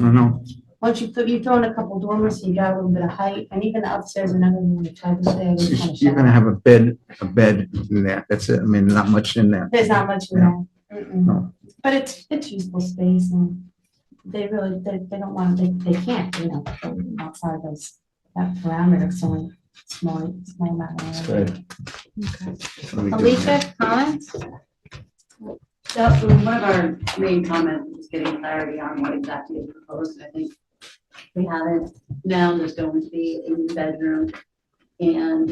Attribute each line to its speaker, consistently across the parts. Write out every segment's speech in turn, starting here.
Speaker 1: I know.
Speaker 2: Once you, put- you throw in a couple dormers, you got a little bit of height, and even the upstairs, and then when you try to say, it's kind of
Speaker 1: You're
Speaker 2: shallow.
Speaker 1: gonna have a bed, a bed in there. That's it. I mean, not much in there.
Speaker 2: There's not much in
Speaker 1: Yeah.
Speaker 2: there. Mm-mm.
Speaker 1: No.
Speaker 2: But it's, it's useful space, and they really, they, they don't want, they, they can't, you know, go outside those, that parameter of someone small, small amount of area.
Speaker 1: So we do-
Speaker 2: Alicia, comments?
Speaker 3: That, was one of our main comments was getting clarity on what exactly is proposed, and I think we have it now, there's going to be a new bedroom and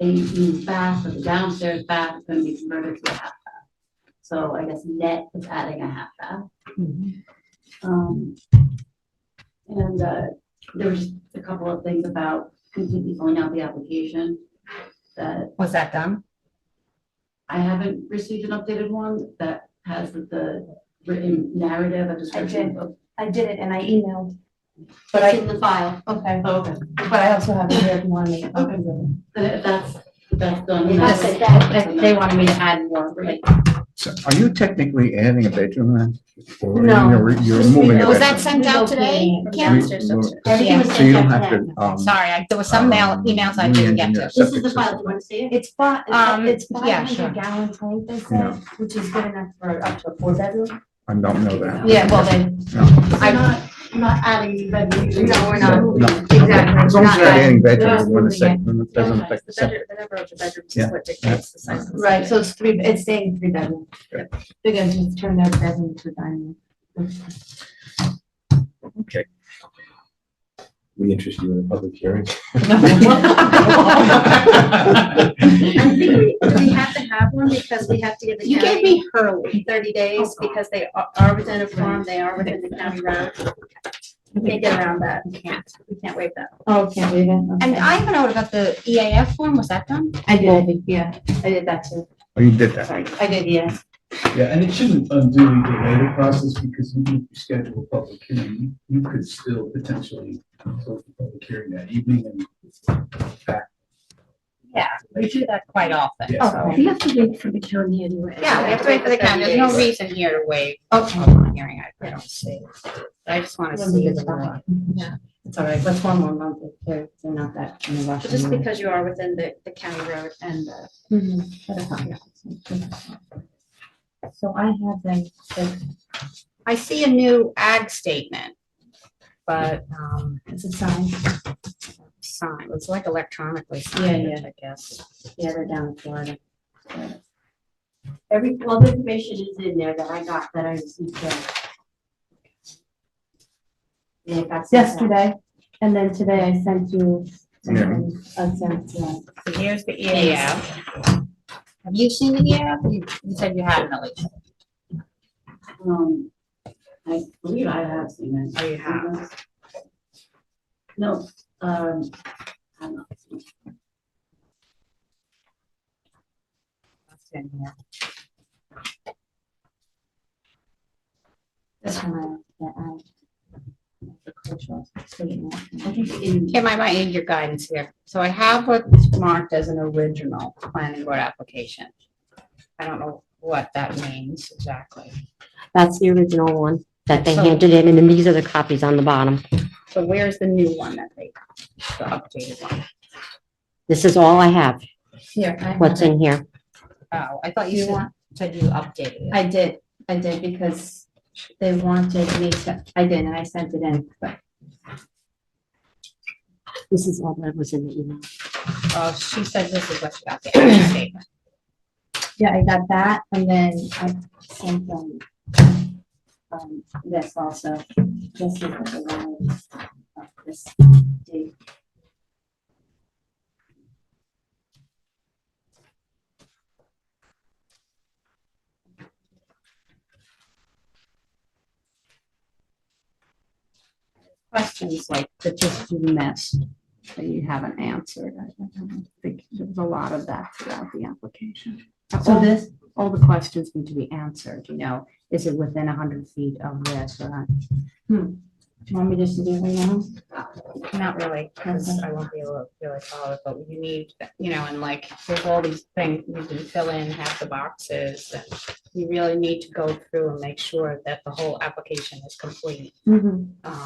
Speaker 3: a new bath, or the downstairs bath is gonna be converted to a half bath. So I guess net is adding a half bath. Um, and, uh, there was a couple of things about completely filling out the application that
Speaker 4: Was that done?
Speaker 3: I haven't received an updated one that has the written narrative, a description of.
Speaker 2: I did it and I emailed, but
Speaker 3: It's
Speaker 2: I,
Speaker 3: in the file.
Speaker 2: okay,
Speaker 3: Okay,
Speaker 2: but I also have it here if you want to make copies of it.
Speaker 3: then if that's, if that's done. then
Speaker 4: That's
Speaker 3: that's-
Speaker 4: it, that, that- they wanted me to add more, like,
Speaker 1: So Are you technically adding a bedroom then? Or
Speaker 2: No.
Speaker 1: you're- You're moving. a bedroom?
Speaker 4: was that sent out today?
Speaker 1: We-
Speaker 4: Kim?
Speaker 2: Everything was
Speaker 1: So you don't
Speaker 2: sent out
Speaker 1: have to. um,
Speaker 4: Sorry, I- there was some mail,
Speaker 1: um,
Speaker 4: emails I didn't get
Speaker 1: re-engineer
Speaker 4: to.
Speaker 3: This is
Speaker 1: septic
Speaker 3: the file,
Speaker 1: system.
Speaker 3: you want to see it?
Speaker 2: It's fi,
Speaker 4: Um,
Speaker 2: it's
Speaker 4: yeah,
Speaker 2: five
Speaker 4: sure.
Speaker 2: hundred gallon tank, they
Speaker 1: Yeah.
Speaker 2: said, which is good enough for up to a four bedroom.
Speaker 1: I don't know that.
Speaker 4: Yeah, well then,
Speaker 3: You're not, you're not adding bedrooms.
Speaker 2: No, we're
Speaker 1: No,
Speaker 2: not.
Speaker 1: no.
Speaker 2: Exactly.
Speaker 1: As long as you're not
Speaker 2: Not
Speaker 1: adding
Speaker 2: adding-
Speaker 1: bedrooms,
Speaker 2: not
Speaker 1: it wouldn't
Speaker 2: moving
Speaker 1: affect- it doesn't affect the septic.
Speaker 4: The number of the bedrooms
Speaker 1: Yeah.
Speaker 4: what
Speaker 1: dictates
Speaker 4: the
Speaker 1: size
Speaker 2: Right, so it's three, it's staying three bedroom.
Speaker 1: Yeah.
Speaker 2: They're gonna just turn that bedroom to dining. room.
Speaker 5: we interest you in a public hearing.
Speaker 6: I think we, do we have to have one because we have to give the
Speaker 4: You gave
Speaker 6: county
Speaker 4: me Hurley.
Speaker 6: thirty days because they are- are within a farm, they are within the county road. We Can't get around that, we can't, we can't waive that.
Speaker 2: Oh, can't read it.
Speaker 4: And
Speaker 2: okay.
Speaker 4: I have a note about the EAF form, was that done?
Speaker 2: I did, yeah, I did that too,
Speaker 1: Oh, you did that.
Speaker 2: sorry, I did, yeah.
Speaker 7: Yeah, and it shouldn't unduly delay the process because even if you schedule a public hearing, you you could still potentially close the public hearing that evening and
Speaker 4: Yeah, we do that quite often.
Speaker 7: Yeah.
Speaker 4: so-
Speaker 2: We
Speaker 6: have to wait for the county anyway.
Speaker 4: Yeah, we have to wait for the county, there's no reason here to waive
Speaker 2: Okay.
Speaker 4: public hearing, I I don't see. I just wanna see the law.
Speaker 2: It's all right, let's one more month, if they're, they're not that in a rush.
Speaker 6: But Just because you are within the, the county road and the
Speaker 2: Mm-hmm. So I have them, so
Speaker 4: I see a new ag statement, but, um,
Speaker 2: it's a sign,
Speaker 4: signed, it's like electronically signed, I guess.
Speaker 2: yeah, they're down in Florida.
Speaker 3: Every, well, the information is in there that I got, that I received.
Speaker 2: Yesterday, and then today I sent you.
Speaker 1: Yeah.
Speaker 2: I sent, yeah.
Speaker 4: So here's the EAF. Have you seen the EAF? You you said you hadn't, Alicia.
Speaker 3: Um, I believe I have seen it.
Speaker 4: Oh, you have.
Speaker 3: No, um, I don't know.
Speaker 4: That's in here.
Speaker 2: This one I, yeah, I. The cultural statement.
Speaker 3: I think in,
Speaker 4: Kim, I might need your guidance here. So I have what's marked as an original planning board application. I don't know what that means exactly.
Speaker 8: That's the original one that they
Speaker 4: So-
Speaker 8: handed in, and then these are the copies on the bottom.
Speaker 4: So where's the new one that they, the updated one?
Speaker 8: This is all I have,
Speaker 4: Here. I have
Speaker 8: what's
Speaker 4: it.
Speaker 8: in here.
Speaker 4: Oh, I thought you said- said you updated it.
Speaker 2: I did, I did, because they wanted me to, I did, and I sent it in, but
Speaker 8: This is all that was in the email.
Speaker 4: Oh, she said this is what she got the actual statement.
Speaker 2: yeah, I got that, and then I sent them. Um, this also, this is the one, uh, this date.
Speaker 4: Questions like that just you missed, that you haven't answered. I I don't think there's a lot of that throughout the application.
Speaker 2: So
Speaker 4: All-
Speaker 2: this,
Speaker 4: all the questions need to be answered, you know, is it within hundred feet of this or Hmm.
Speaker 2: do you want me just to do it right now?
Speaker 4: not? Not really, because I won't be able to really follow it, but you need, you know, and like, there's all these things, you can fill in half the boxes. and
Speaker 2: Mm-hmm.
Speaker 4: You really need to go through and make sure that the whole application is complete. Um,